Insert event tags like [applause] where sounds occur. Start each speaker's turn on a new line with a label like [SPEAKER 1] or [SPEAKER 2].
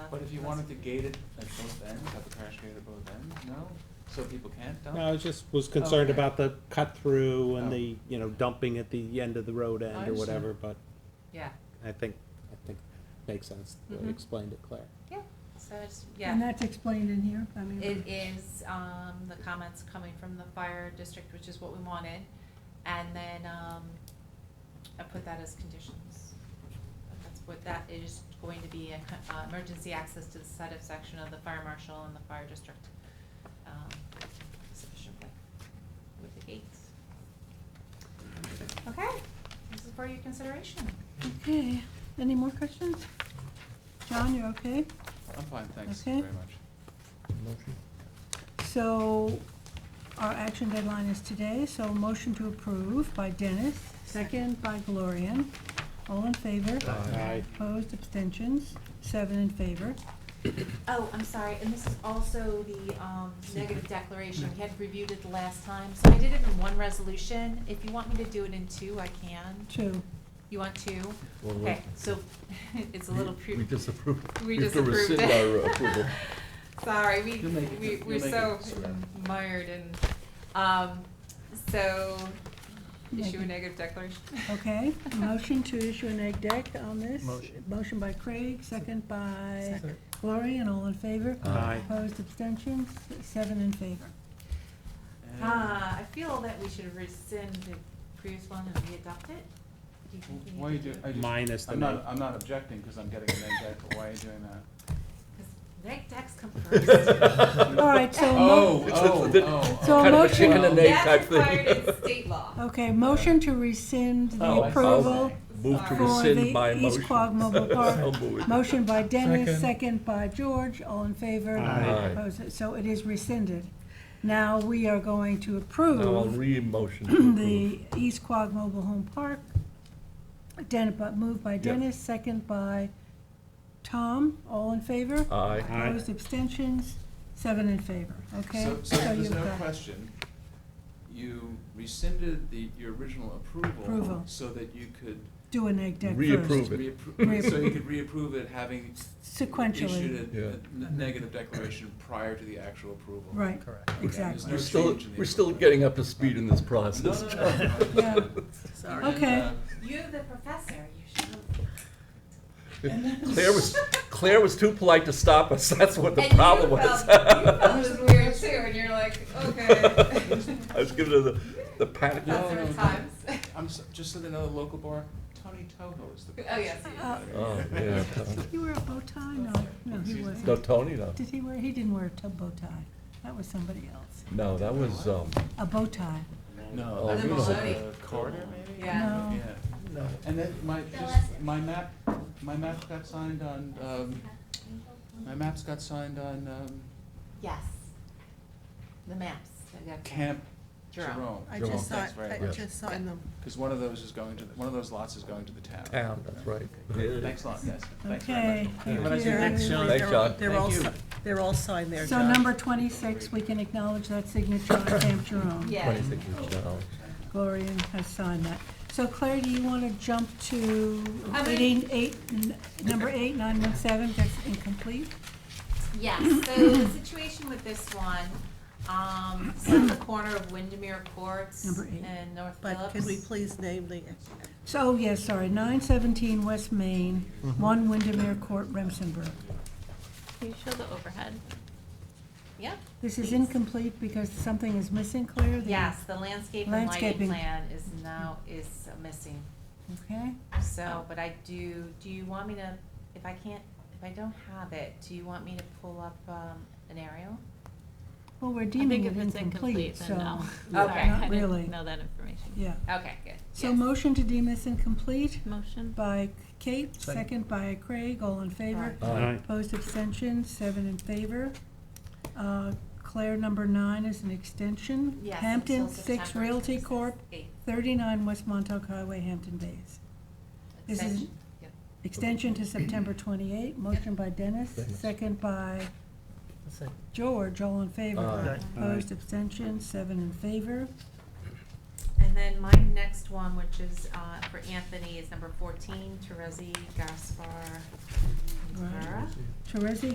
[SPEAKER 1] If you wanted to gate it at both ends, have a crash gate at both ends, no? So people can't dump?
[SPEAKER 2] No, I was just, was concerned
[SPEAKER 1] Oh. Okay.
[SPEAKER 2] about the cut through
[SPEAKER 1] Oh.
[SPEAKER 2] and the, you know, dumping at the end of the road end or
[SPEAKER 1] understand.
[SPEAKER 2] whatever, but
[SPEAKER 3] Yeah,
[SPEAKER 2] I think, I think makes sense, the
[SPEAKER 1] Mm-hmm.
[SPEAKER 2] way you
[SPEAKER 3] Mhm.
[SPEAKER 2] explained it, Claire.
[SPEAKER 3] so it's,
[SPEAKER 4] And
[SPEAKER 3] yeah,
[SPEAKER 4] that's explained in here, I mean.
[SPEAKER 3] it is, um, the comments coming from the fire district, which is what we wanted. And then, um, I put that as conditions. But That's what, that is going to be a, co- uh, emergency access to the site of section of the fire marshal and the fire district, um, sufficiently with the gates. Okay, this is for your consideration.
[SPEAKER 4] Okay, any more questions? John, you're okay?
[SPEAKER 1] I'm fine, thanks
[SPEAKER 4] Okay.
[SPEAKER 1] very much.
[SPEAKER 4] So our action deadline is today, so motion to approve by Dennis, second by Gloria. All in favor?
[SPEAKER 2] Aye.
[SPEAKER 4] Opposed, abstentions, seven in favor.
[SPEAKER 3] Oh, I'm sorry, and this is also the um, negative declaration, we had reviewed it the last time, so I did it in one resolution. If you want me to do it in two, I can.
[SPEAKER 4] Two.
[SPEAKER 3] You want two?
[SPEAKER 5] Well, we-
[SPEAKER 3] Okay, so [laughs] it's a little. pre-
[SPEAKER 5] We disapproved.
[SPEAKER 3] We
[SPEAKER 5] You have to
[SPEAKER 3] disapproved
[SPEAKER 5] rescind
[SPEAKER 3] it. [laughs]
[SPEAKER 5] our approval.
[SPEAKER 3] Sorry, we,
[SPEAKER 1] You'll make it,
[SPEAKER 3] we,
[SPEAKER 1] you'll
[SPEAKER 3] we're
[SPEAKER 1] make it,
[SPEAKER 3] so
[SPEAKER 1] Sarah.
[SPEAKER 3] mired in, um, so issue a
[SPEAKER 4] Negative.
[SPEAKER 3] negative declaration.
[SPEAKER 4] Okay, motion to issue an egg deck on this.
[SPEAKER 2] Motion.
[SPEAKER 4] Motion by Craig, second by Gloria, all in favor?
[SPEAKER 5] Aye.
[SPEAKER 4] Opposed, abstentions, seven in favor.
[SPEAKER 1] And-
[SPEAKER 3] Ah, I feel that we should rescind the previous one and readopt it. Do you think we need
[SPEAKER 1] Why are you
[SPEAKER 3] to
[SPEAKER 1] do, I just,
[SPEAKER 2] Minus the
[SPEAKER 1] I'm
[SPEAKER 2] neg.
[SPEAKER 1] not, I'm not objecting, because I'm getting an egg back, but why are you doing that?
[SPEAKER 3] Because neg decks
[SPEAKER 1] [laughs]
[SPEAKER 3] come first.
[SPEAKER 4] All right, so. mo-
[SPEAKER 1] Oh,
[SPEAKER 5] It's
[SPEAKER 1] oh,
[SPEAKER 5] a-
[SPEAKER 1] oh.
[SPEAKER 4] So
[SPEAKER 1] oh.
[SPEAKER 4] Kind of a motion-
[SPEAKER 5] chicken and egg.
[SPEAKER 3] That's
[SPEAKER 5] type thing.
[SPEAKER 3] required in state law.
[SPEAKER 4] Okay, motion to rescind the
[SPEAKER 5] Oh,
[SPEAKER 4] approval.
[SPEAKER 5] Move to
[SPEAKER 3] Sorry.
[SPEAKER 4] For the
[SPEAKER 5] rescind my
[SPEAKER 4] East
[SPEAKER 5] motion.
[SPEAKER 4] Quogue Mobile Park.
[SPEAKER 5] [laughs] I'll move it.
[SPEAKER 4] Motion by
[SPEAKER 2] Second.
[SPEAKER 4] Dennis, second by George, all in favor?
[SPEAKER 2] Aye.
[SPEAKER 5] Aye.
[SPEAKER 4] Opposed? So it is rescinded. Now we are going to
[SPEAKER 5] Now I'll
[SPEAKER 4] approve
[SPEAKER 5] re-motion to
[SPEAKER 4] [clears throat]
[SPEAKER 5] approve.
[SPEAKER 4] the East Quogue Mobile Home Park. Den, but moved by Dennis, second by Tom, all in favor?
[SPEAKER 5] Aye.
[SPEAKER 2] Aye.
[SPEAKER 4] Opposed, abstentions, seven in favor, okay?
[SPEAKER 1] So, so
[SPEAKER 4] you've
[SPEAKER 1] there's no
[SPEAKER 4] got it.
[SPEAKER 1] question, you rescinded the, your original approval.
[SPEAKER 4] Approval.
[SPEAKER 1] So that you could
[SPEAKER 4] Do an egg deck first.
[SPEAKER 5] Reapprove. it.
[SPEAKER 1] reappro, so you could reapprove it having
[SPEAKER 4] Sequentially,
[SPEAKER 1] issued a- a n- negative declaration prior to the actual approval.
[SPEAKER 4] right,
[SPEAKER 1] There's
[SPEAKER 4] exactly.
[SPEAKER 1] no
[SPEAKER 5] We're still,
[SPEAKER 1] change in the
[SPEAKER 5] we're still
[SPEAKER 1] approval.
[SPEAKER 5] [laughs] getting up to speed in this
[SPEAKER 1] No,
[SPEAKER 5] process.
[SPEAKER 1] no, no, no.
[SPEAKER 4] Yeah.
[SPEAKER 1] Sorry.
[SPEAKER 4] Okay.
[SPEAKER 3] You're the professor, you should. know.
[SPEAKER 5] [laughs] Claire was, Claire was too polite to stop us, that's what the
[SPEAKER 3] And you
[SPEAKER 5] problem
[SPEAKER 3] felt-
[SPEAKER 5] was.
[SPEAKER 3] You felt it was weird too, and you're like,
[SPEAKER 5] [laughs]
[SPEAKER 3] okay.
[SPEAKER 5] [laughs] I was giving her the, the pat.
[SPEAKER 1] No,
[SPEAKER 3] Professor
[SPEAKER 1] no,
[SPEAKER 3] at times. [laughs]
[SPEAKER 1] I'm, so- just so they know, the local bar, Tony Toho is the.
[SPEAKER 3] Oh, yes, he is.
[SPEAKER 4] Uh,
[SPEAKER 5] Oh, yeah.
[SPEAKER 4] He wore a bow tie? No, no, he
[SPEAKER 1] Excuse me?
[SPEAKER 4] wasn't.
[SPEAKER 5] No, Tony, no.
[SPEAKER 4] Did he wear, he didn't wear a tub bow tie. That was somebody else.
[SPEAKER 5] No, that was, um,
[SPEAKER 4] A bow tie.
[SPEAKER 1] No,
[SPEAKER 5] Oh,
[SPEAKER 1] that
[SPEAKER 5] really?
[SPEAKER 1] was uh, Carter, maybe?
[SPEAKER 3] Yeah.
[SPEAKER 4] No.
[SPEAKER 1] Yeah.
[SPEAKER 5] no.
[SPEAKER 1] And then my, just, my map, my map got signed on, um, my maps got signed on, um,
[SPEAKER 3] Yes. The maps, I got
[SPEAKER 1] Camp
[SPEAKER 3] Jerome.
[SPEAKER 1] Jerome.
[SPEAKER 6] I
[SPEAKER 5] Jerome.
[SPEAKER 6] just saw,
[SPEAKER 1] Thanks very
[SPEAKER 6] I
[SPEAKER 1] much.
[SPEAKER 6] just saw in them.
[SPEAKER 1] Because one of those is going to, the- one of those lots is going to the town.
[SPEAKER 5] Town, that's right.
[SPEAKER 1] Thanks a lot, guys. Thanks very
[SPEAKER 4] Okay,
[SPEAKER 1] much.
[SPEAKER 4] thank
[SPEAKER 1] Have a nice
[SPEAKER 4] you.
[SPEAKER 1] evening.
[SPEAKER 5] Thanks, John.
[SPEAKER 6] They're all,
[SPEAKER 1] Thank
[SPEAKER 6] si- they're all signed there,
[SPEAKER 4] So
[SPEAKER 6] John.
[SPEAKER 4] number twenty-six, we can acknowledge that signature
[SPEAKER 6] [coughs]
[SPEAKER 4] on Camp Jerome.
[SPEAKER 3] Yeah.
[SPEAKER 5] Twenty-six inch now.
[SPEAKER 4] Gloria has signed that. So Claire, do you want to jump to
[SPEAKER 3] I mean-
[SPEAKER 4] eighteen, eight, n- number eight, nine one seven, that's incomplete?
[SPEAKER 3] Yes, so
[SPEAKER 5] [laughs]
[SPEAKER 3] the situation with this one, um, it's on the corner of Windermere Courts
[SPEAKER 4] Number eight.
[SPEAKER 3] and North
[SPEAKER 6] But could we
[SPEAKER 3] Phillips.
[SPEAKER 6] please name the,
[SPEAKER 4] So, oh, yes, sorry, nine seventeen West Main,
[SPEAKER 1] Mm-hmm.
[SPEAKER 4] one Windermere Court, Remsenburg.
[SPEAKER 3] Can you show the overhead? Yeah.
[SPEAKER 4] This is
[SPEAKER 3] Please.
[SPEAKER 4] incomplete because something is missing, Claire? that you-
[SPEAKER 3] Yes, the landscape and lighting
[SPEAKER 4] Landscaping.
[SPEAKER 3] plan is now, is missing.
[SPEAKER 4] Okay,
[SPEAKER 3] So, but I do, do you want me to, if I can't, if I don't have it, do you want me to pull up, um, an aerial?
[SPEAKER 4] well, we're
[SPEAKER 7] I think
[SPEAKER 4] deeming it
[SPEAKER 7] if it's
[SPEAKER 4] incomplete,
[SPEAKER 7] incomplete,
[SPEAKER 4] so.
[SPEAKER 7] then
[SPEAKER 4] [laughs]
[SPEAKER 7] no.
[SPEAKER 3] Okay.
[SPEAKER 7] Sorry, I
[SPEAKER 4] Not
[SPEAKER 7] didn't
[SPEAKER 4] really.
[SPEAKER 7] Know that information.
[SPEAKER 4] Yeah,
[SPEAKER 3] Okay, good.
[SPEAKER 4] so
[SPEAKER 3] Yes.
[SPEAKER 4] motion to deem this incomplete
[SPEAKER 7] Motion?
[SPEAKER 4] by Kate, second by Craig, all in favor.
[SPEAKER 5] Aye.
[SPEAKER 4] Opposed, abstention, seven in favor. Uh, Claire, number nine is an extension.
[SPEAKER 3] Yes,
[SPEAKER 4] Hampton
[SPEAKER 3] until
[SPEAKER 4] Six
[SPEAKER 3] September
[SPEAKER 4] Realty
[SPEAKER 3] 26th.
[SPEAKER 4] Corp.,
[SPEAKER 3] Eight.
[SPEAKER 4] thirty-nine West Montauk Highway, Hampton Bays. This is-
[SPEAKER 3] Extension. Yep.
[SPEAKER 4] Extension to September twenty-eight, motion by Dennis,
[SPEAKER 5] Dennis.
[SPEAKER 4] second by George, all in favor.
[SPEAKER 5] Aye.
[SPEAKER 4] Opposed, abstention, seven in favor.
[SPEAKER 3] And then my next one, which is uh, for Anthony, is number fourteen, Teresi Gaspar Rivera.
[SPEAKER 4] Teresi